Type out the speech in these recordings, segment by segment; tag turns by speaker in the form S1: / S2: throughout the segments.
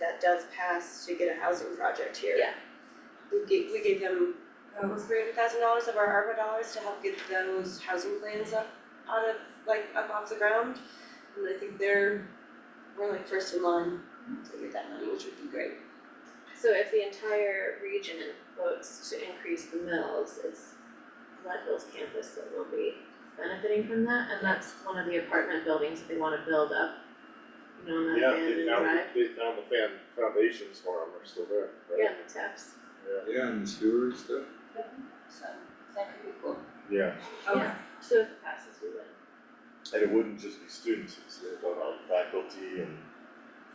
S1: that does pass to get a housing project here.
S2: Yeah.
S1: We gave, we gave them uh, three hundred thousand dollars of our ARPA dollars to help get those housing plans up out of, like, up off the ground. And I think they're, we're like first in line to get that money, which would be great.
S2: So if the entire region votes to increase the mills, it's Leadville's campus that will be benefiting from that, and that's one of the apartment buildings that they wanna build up. You know, on that
S3: Yeah,
S2: abandoned
S3: they found,
S2: drive,
S3: they found the fan, foundations for them are still there,
S2: yeah,
S3: right?
S2: the taps.
S4: Yeah, and the sewer and stuff.
S1: So that could be cool.
S3: Yeah.
S1: Okay.
S2: Yeah, so if it passes, we win.
S3: And it wouldn't just be students, it's the um, faculty and
S2: And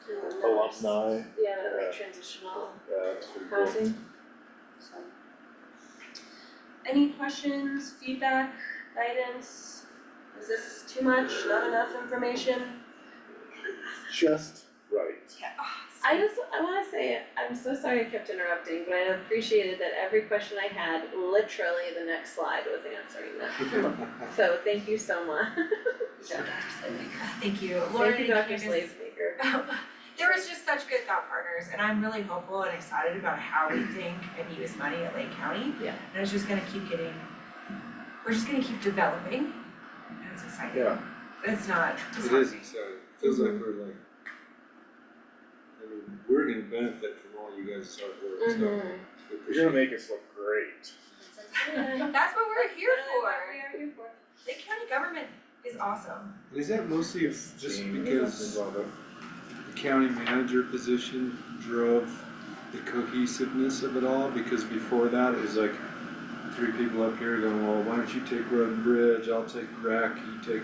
S2: then that's-
S3: alumni,
S2: Yeah, that
S3: Yeah.
S2: like transitional
S3: uh, it's pretty cool.
S2: housing.
S1: So. Any questions, feedback, guidance? Is this too much, not enough information?
S3: Just right.
S1: Yeah.
S2: I just, I wanna say, I'm so sorry I kept interrupting, but I appreciated that every question I had, literally the next slide was answering them. So thank you so much.
S1: Yeah.
S5: Thank you, Laura
S2: Thank you,
S5: and
S2: Dr.
S5: Candace.
S2: Slavemaker.
S5: There was just such good thought partners and I'm really hopeful and excited about how we think and use money at Lake County.
S2: Yeah.
S5: And it's just gonna keep getting, we're just gonna keep developing and it's exciting.
S3: Yeah.
S5: It's not, it's
S4: It
S5: not
S4: is exciting, feels like we're like, I mean, we're gonna benefit from all you guys' hard work, so we
S3: You're
S4: appreciate
S3: gonna make us look great.
S5: That's what we're here for.
S1: we are here for.
S5: Lake County government is awesome.
S4: it. Is that mostly if- just because
S3: Love it.
S4: the county manager position drove the cohesiveness of it all? Because before that, it was like three people up here going, well, why don't you take road and bridge, I'll take rec, you take.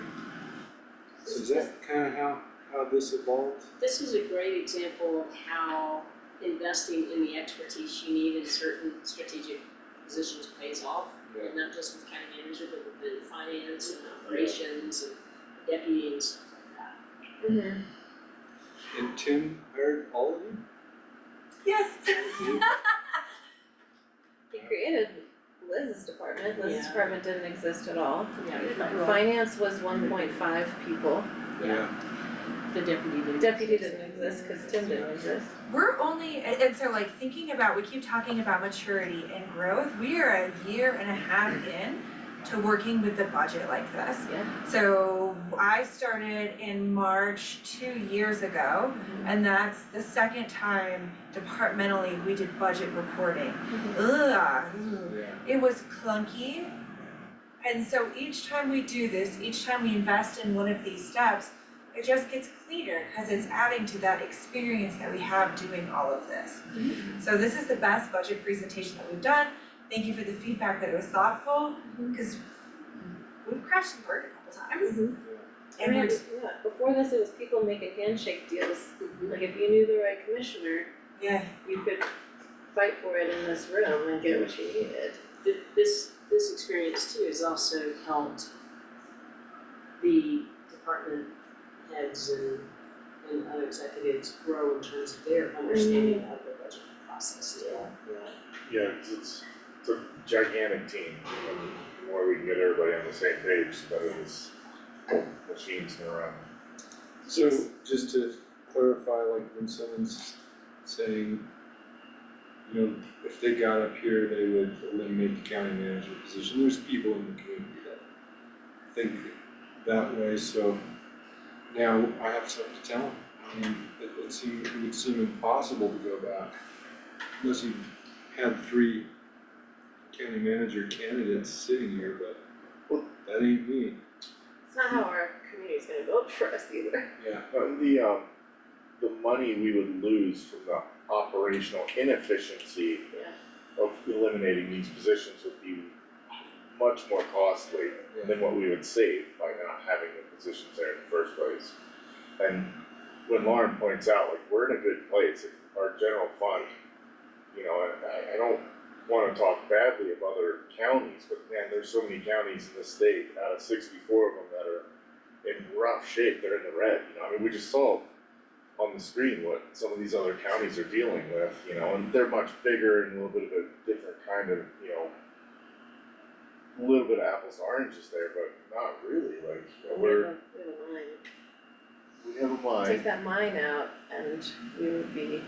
S4: So is that kinda how, how this evolved?
S6: This is a great example of how investing in the expertise you need in certain strategic positions pays off.
S4: Yeah.
S6: And not just with county manager, but within finance and operations and deputy and stuff like that.
S2: Mhm.
S4: And Tim hired all of you?
S5: Yes.
S2: He created Liz's department, Liz's
S6: Yeah.
S2: department didn't exist at all.
S6: Yeah.
S2: Finance was one point five people,
S4: Yeah.
S6: The deputy didn't.
S2: deputy didn't exist, cause Tim didn't exist.
S5: We're only, and and so like thinking about, we keep talking about maturity and growth, we are a year and a half in to working with the budget like this.
S2: Yeah.
S5: So I started in March two years ago, and that's the second time departmentally we did budget reporting. Ugh,
S4: Yeah.
S5: it was clunky. And so each time we do this, each time we invest in one of these steps, it just gets cleaner because it's adding to that experience that we have doing all of this. So this is the best budget presentation that we've done. Thank you for the feedback that it was thoughtful because we've crashed and burned a couple times.
S2: I mean,
S5: And we're,
S2: yeah, before this, it was people making handshake deals, like if you knew the right commissioner,
S5: yeah,
S2: you could fight for it in this room and get what you needed.
S6: Th- This, this experience too has also helped the department heads and, and other executives grow in terms of their understanding of the budget process too.
S3: Yeah, 'cause it's, it's a gigantic team, and the more we can get everybody on the same page, the better this machine's gonna run.
S4: So just to clarify, like when someone's saying, you know, if they got up here, they would eliminate the county manager position, there's people in the community that think that way, so now I have something to tell them. I mean, it would seem, it would seem impossible to go back unless you had three county manager candidates sitting here, but that ain't me.
S2: It's not how our community's gonna vote for us either.
S4: Yeah.
S3: But the, um, the money we would lose from the operational inefficiency
S2: Yeah.
S3: of eliminating these positions would be much more costly than what we would save by not having the positions there in the first place. And when Lauren points out, like, we're in a good place, our general fund, you know, and I, I don't wanna talk badly of other counties, but man, there's so many counties in the state, out of sixty-four of them that are in rough shape, they're in the red, you know, I mean, we just saw on the screen what some of these other counties are dealing with, you know, and they're much bigger and a little bit of a different kind of, you know, a little bit of apples to oranges there, but not really, like, you know,
S2: We have
S3: we're,
S2: a, we have a mine.
S3: we have a mind.
S2: Take that mine out and we would be